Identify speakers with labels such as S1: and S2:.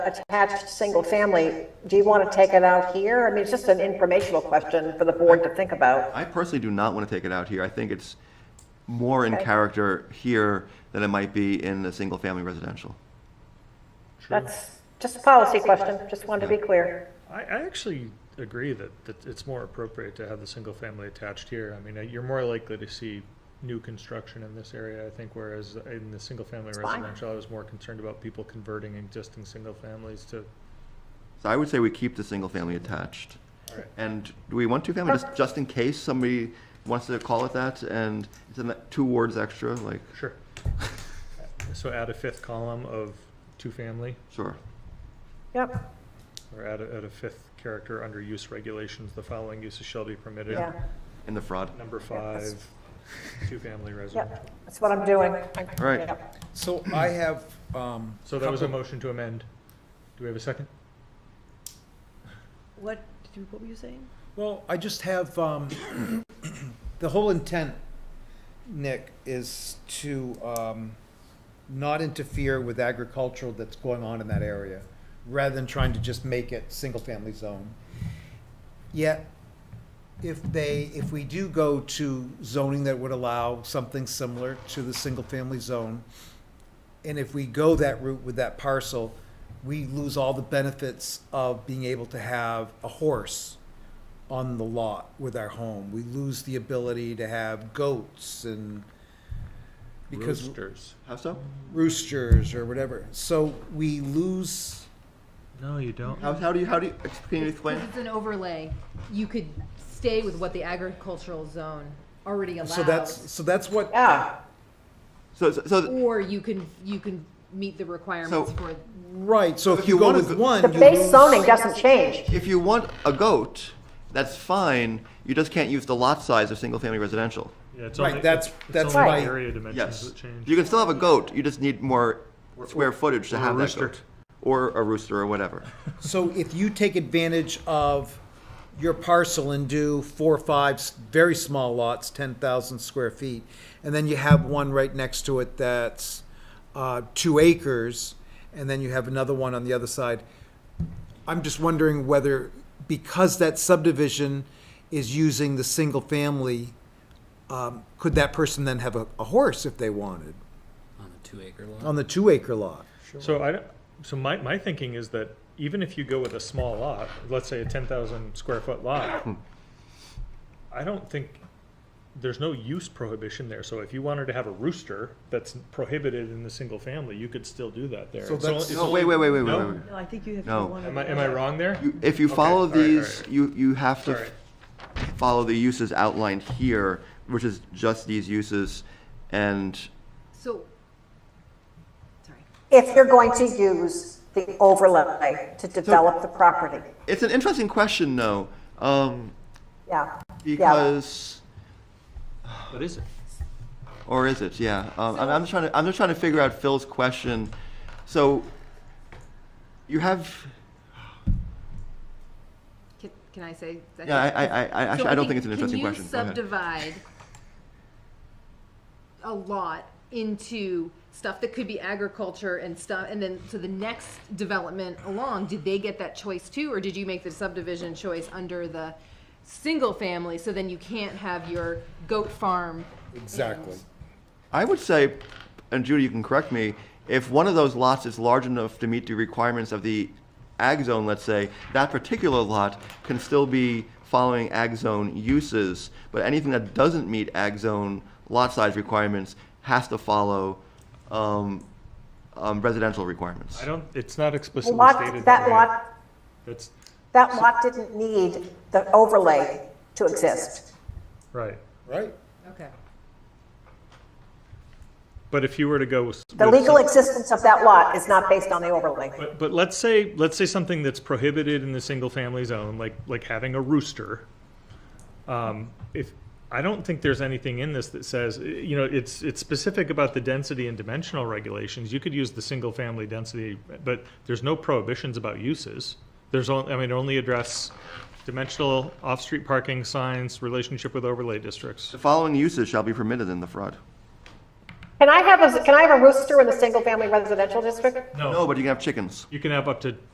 S1: attached single family, do you want to take it out here? I mean, it's just an informational question for the board to think about.
S2: I personally do not want to take it out here. I think it's more in character here than it might be in a single-family residential.
S1: That's just a policy question, just wanted to be clear.
S3: I, I actually agree that, that it's more appropriate to have the single family attached here. I mean, uh, you're more likely to see new construction in this area, I think, whereas in the single family
S1: fine.
S3: residential, I was more concerned about people converting existing single families to.
S2: So I would say we keep the single-family attached.
S3: Alright.
S2: And do we want two-family, just, just in case somebody wants to call it that, and it's in that two words extra, like,
S3: Sure. So add a fifth column of two family,
S2: sure.
S1: Yep,
S3: or add a, add a fifth character under use regulations, the following uses shall be permitted.
S1: yeah,
S2: In the fraud.
S3: Number
S1: that's-
S3: five, two family residential.
S1: yep, that's what I'm doing. All
S2: right.
S4: So I have, um.
S3: So that was a
S4: couple-
S3: motion to amend. Do we have a second?
S5: What, did you- what were you saying?
S4: Well, I just have, um, the whole intent, Nick, is to, um, not interfere with agricultural that's going on in that area, rather than trying to just make it single-family zone. Yet, if they, if we do go to zoning that would allow something similar to the single-family zone, and if we go that route with that parcel, we lose all the benefits of being able to have a horse on the lot with our home. We lose the ability to have goats and because
S3: Roosters.
S2: How so?
S4: roosters or whatever. So we lose.
S3: No, you don't.
S2: How, how do you, how do you, can you explain?
S6: Because it's an overlay, you could stay with what the agricultural zone already allows.
S4: So that's so that's what
S1: Yeah,
S2: So, so- so,
S6: Or you can, you can meet the requirements
S2: So-
S6: for,
S4: right. So if
S2: If
S4: you
S2: you
S4: go
S2: wanna
S4: with
S2: go-
S4: one,
S1: the
S4: you
S1: base
S4: lose-
S1: zoning doesn't change.
S2: if you want a goat, that's fine, you just can't use the lot size of single-family residential.
S3: Yeah, it's
S4: Right,
S3: only,
S4: that's-
S3: it's- it's
S4: that's
S3: only
S1: Right.
S3: the area dimensions
S2: Yes.
S3: that change.
S2: You can still have a goat, you just need more square footage to
S3: or a
S2: have that
S3: rooster.
S2: goat. Or a rooster or whatever.
S4: So if you take advantage of your parcel and do four or five s- very small lots, 10,000 square feet, and then you have one right next to it that's uh, two acres, and then you have another one on the other side. I'm just wondering whether, because that subdivision is using the single family, um, could that person then have a, a horse if they wanted
S7: On a two acre lot?
S4: on the two acre lot?
S3: So I, don't- so my, my thinking is that even if you go with a small lot, let's say a ten thousand square foot lot, I don't think, there's no use prohibition there, so if you wanted to have a rooster that's prohibited in the single family, you could still do that there.
S4: So
S3: It's
S4: that's-
S3: only- it's
S2: No, wait, wait, wait, wait, wait,
S3: No?
S2: wait.
S5: No, I think you have to
S2: No.
S5: go on.
S3: Am I, am I wrong there?
S2: You- If you
S3: Okay, all
S2: follow
S3: right, all
S2: these,
S3: right.
S2: you, you have to
S3: Sorry.
S2: follow the uses outlined here, which is just these uses, and
S6: so, sorry.
S1: If you're going to use the overlay to develop the property,
S2: it's an interesting question, though, um,
S1: yeah.
S2: because,
S7: What is it?
S2: or is it? Yeah, um, I'm, I'm just trying to, I'm just trying to figure out Phil's question. So, you have,
S6: Can, can I say?
S2: yeah, I, I, I- I,
S6: So
S2: actually, I don't think it's an
S6: can
S2: interesting
S6: you
S2: question. Go ahead.
S6: subdivide a lot into stuff that could be agriculture and stuff, and then so the next development along, did they get that choice too, or did you make the subdivision choice under the single family? So then you can't have your goat farm.
S4: Exactly.
S2: I would say, and Judy, you can correct me, if one of those lots is large enough to meet the requirements of the ag zone, let's say, that particular lot can still be following ag zone uses, but anything that doesn't meet ag zone lot size requirements has to follow um, um, residential requirements.
S3: I don't, it's not explicitly
S1: Lot, that
S3: stated that way.
S1: lot,
S3: That's,
S1: that lot didn't need the overlay to exist.
S3: right.
S4: Right.
S6: Okay.
S3: But if you were to go with.
S1: The
S3: with
S1: legal
S3: some-
S1: existence of that lot is not based on the overlay.
S3: But, but let's say, let's say something that's prohibited in the single-family zone, like, like having a rooster. Um, if, I don't think there's anything in this that says, eh, you know, it's, it's specific about the density and dimensional regulations. You could use the single-family density, but there's no prohibitions about uses. There's only, I mean, only address dimensional off-street parking signs, relationship with overlay districts.
S2: The following uses shall be permitted in the fraud.
S1: Can I have a, can I have a rooster in the single-family residential district?
S3: No,
S2: No, but you can have chickens.
S3: you can have up to